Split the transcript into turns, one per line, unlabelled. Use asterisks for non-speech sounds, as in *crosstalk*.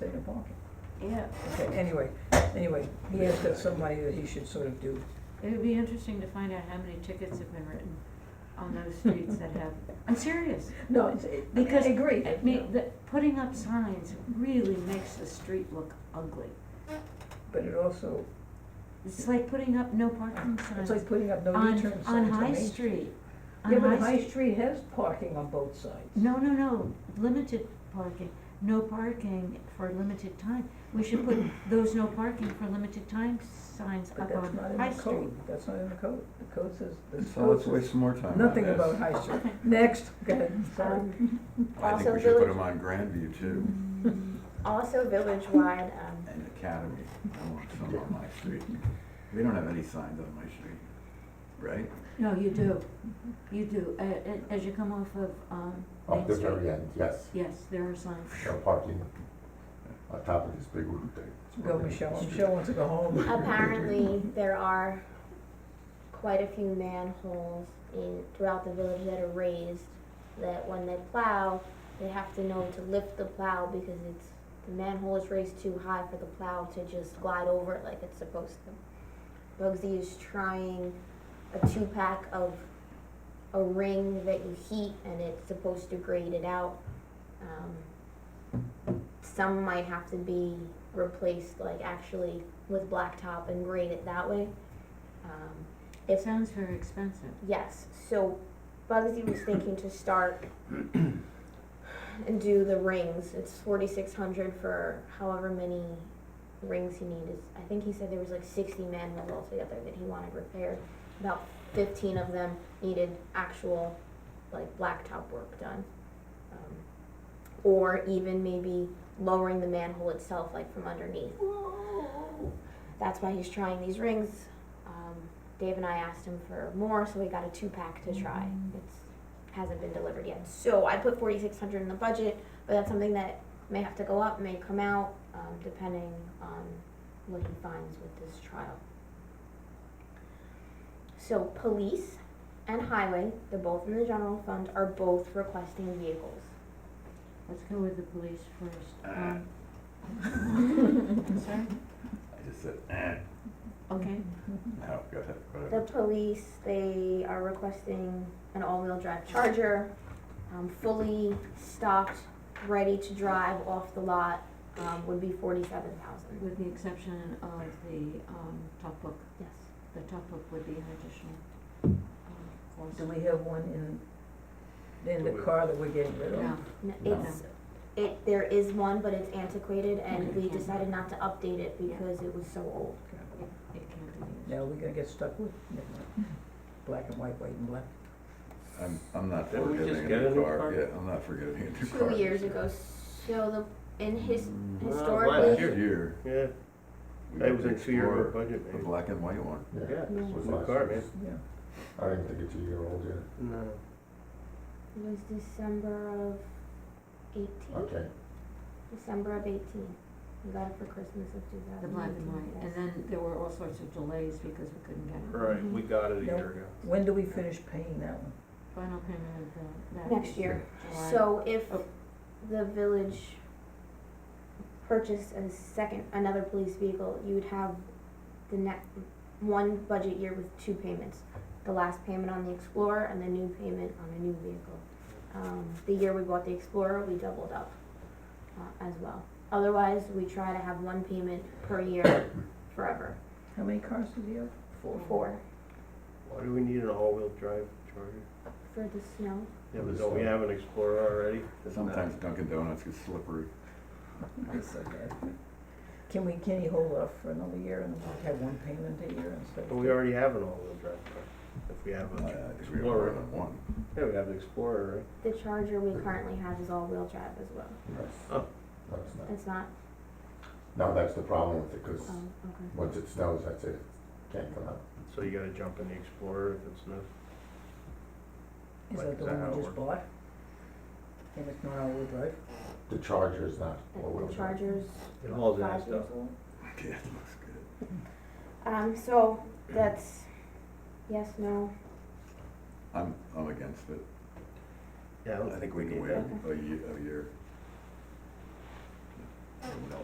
Yeah,
Okay, anyway, anyway, he has got somebody that he should sort of do.
it would be interesting to find out how many tickets have been written on those streets that have, I'm serious.
No, it's, it- *laughs* I mean, I
Because,
agree.
I mean, the, putting up signs really makes the street look ugly.
But it also,
It's like putting up no parking
it's
signs
like putting up no
on,
return signs
on
on
High
Main
Street. On
Yeah, but
High
High
Street-
Street has parking on both sides.
No, no, no, limited parking, no parking for limited time. We should put those no parking for limited time signs
But
up
that's not
on
in
High
the
Street.
code, that's not in the code, the code says, the
So
code
let's waste
says
some more time on this.
nothing about High Street. Next, go
*laughs*
ahead, sorry.
I think
Also
we should put
village-
them on Grandview too,
Also village-wide, um,
Mm-hmm.
and Academy, I want some on my street. We don't have any signs on my street, right?
No, you do, you do, A- a- as you come off of, um,
Up
Main
the
Street.
Oh, very end, yes,
Yes, there are signs.
no parking on top of this big wooden thing.
Go, Michelle, Michelle wants to go home.
*laughs*
apparently there are quite a few manholes in, throughout the village that are raised, that when they plow, they have to know to lift the plow because it's, the manhole is raised too high for the plow to just glide over it like it's supposed to. Bugsy is trying a two-pack of a ring that you heat and it's supposed to grade it out. Um, Some might have to be replaced, like actually with blacktop and grade it that way. Um,
It sounds very expensive.
Yes, so Bugsy was thinking to start and do the rings. It's forty-six hundred for however many rings he needed. I think he said there was like sixty manholes altogether that he wanted repaired. About fifteen of them needed actual, like, blacktop work done. Um, Or even maybe lowering the manhole itself, like, from underneath. That's why he's trying these rings. Um, Dave and I asked him for more, so we got a two pack to try. It's hasn't been delivered yet. So I put forty six hundred in the budget, but that's something that may have to go up, may come out, um, depending on what he finds with this trial. So police and highway, they're both in the general fund, are both requesting vehicles.
Let's go with the police first. Um,
*laughs*
Sorry?
I just said, eh,
Okay,
no, go ahead,
The
whatever.
police, they are requesting an all-wheel drive charger, um, fully stocked, ready to drive off the lot, um, would be forty-seven thousand.
with the exception of the, um, top book,
Yes.
the top book would be an additional, um, cost.
Do we have one in, in the car that we're getting rid of?
No,
No,
No.
It's, it, there is one, but it's antiquated and
Okay.
we decided not to update it because it was so old.
it can't be used.
Now, we're gonna get stuck with, never mind. black and white, white and black.
I'm, I'm not
Didn't we just
forgetting
get a
a
new
new car,
car?
yeah, I'm not forgetting a new car.
Two years ago, so the, in his,
Mm,
last
historically,
Last year,
Yeah,
we
that was a
explored
two-year budget,
The
maybe.
black and white one.
Yeah,
No.
it's a new car, man.
Yeah.
I didn't think it's a year old yet,
No.
it was December of eighteen,
okay.
December of eighteen. We got it for Christmas of two thousand eighteen.
The black and white, and then there were all sorts of delays because we couldn't get it.
Right,
Mm-hmm.
we got it a year ago.
When do we finish paying that one?
Final payment of the, that
Next
is
year.
July.
So if
Oh.
the village purchased a second, another police vehicle, you would have the next, one budget year with two payments. The last payment on the Explorer and the new payment on the new vehicle. Um, the year we bought the Explorer, we doubled up, uh, as well. Otherwise, we try to have one payment per year *coughs* forever.
How many cars does he have? Four.
Four,
Why do we need an all-wheel drive charger?
for the snow.
Yeah, but don't we have an Explorer already?
Sometimes Dunkin' Donuts gets slippery.
That's so bad. Can we, can he hold off for another year and have one payment a year instead?
But we already have an all-wheel drive car. If we have
Uh,
a,
if we have more
Explorer.
than one.
yeah, we have an Explorer, right?
The Charger we currently have is all-wheel drive as well.
No,
Oh.
No, it's not.
It's not,
No, that's the problem with it, because
um, okay.
once it snows, that's it, can't come out.
So you gotta jump in the Explorer if it's no,
Is that the
Is that how
one
it
we just
works?
bought? And it's not all-wheel drive?
The charger is not
The-
all-wheel
The
drive.
Charger's
it hauls ass
five
stuff.
years old.
*laughs* Yeah, it looks good.
Um, so that's yes, no.
I'm, I'm against it.
Yeah, I
I
don't
think we can
need
wait
that.
a year, a year.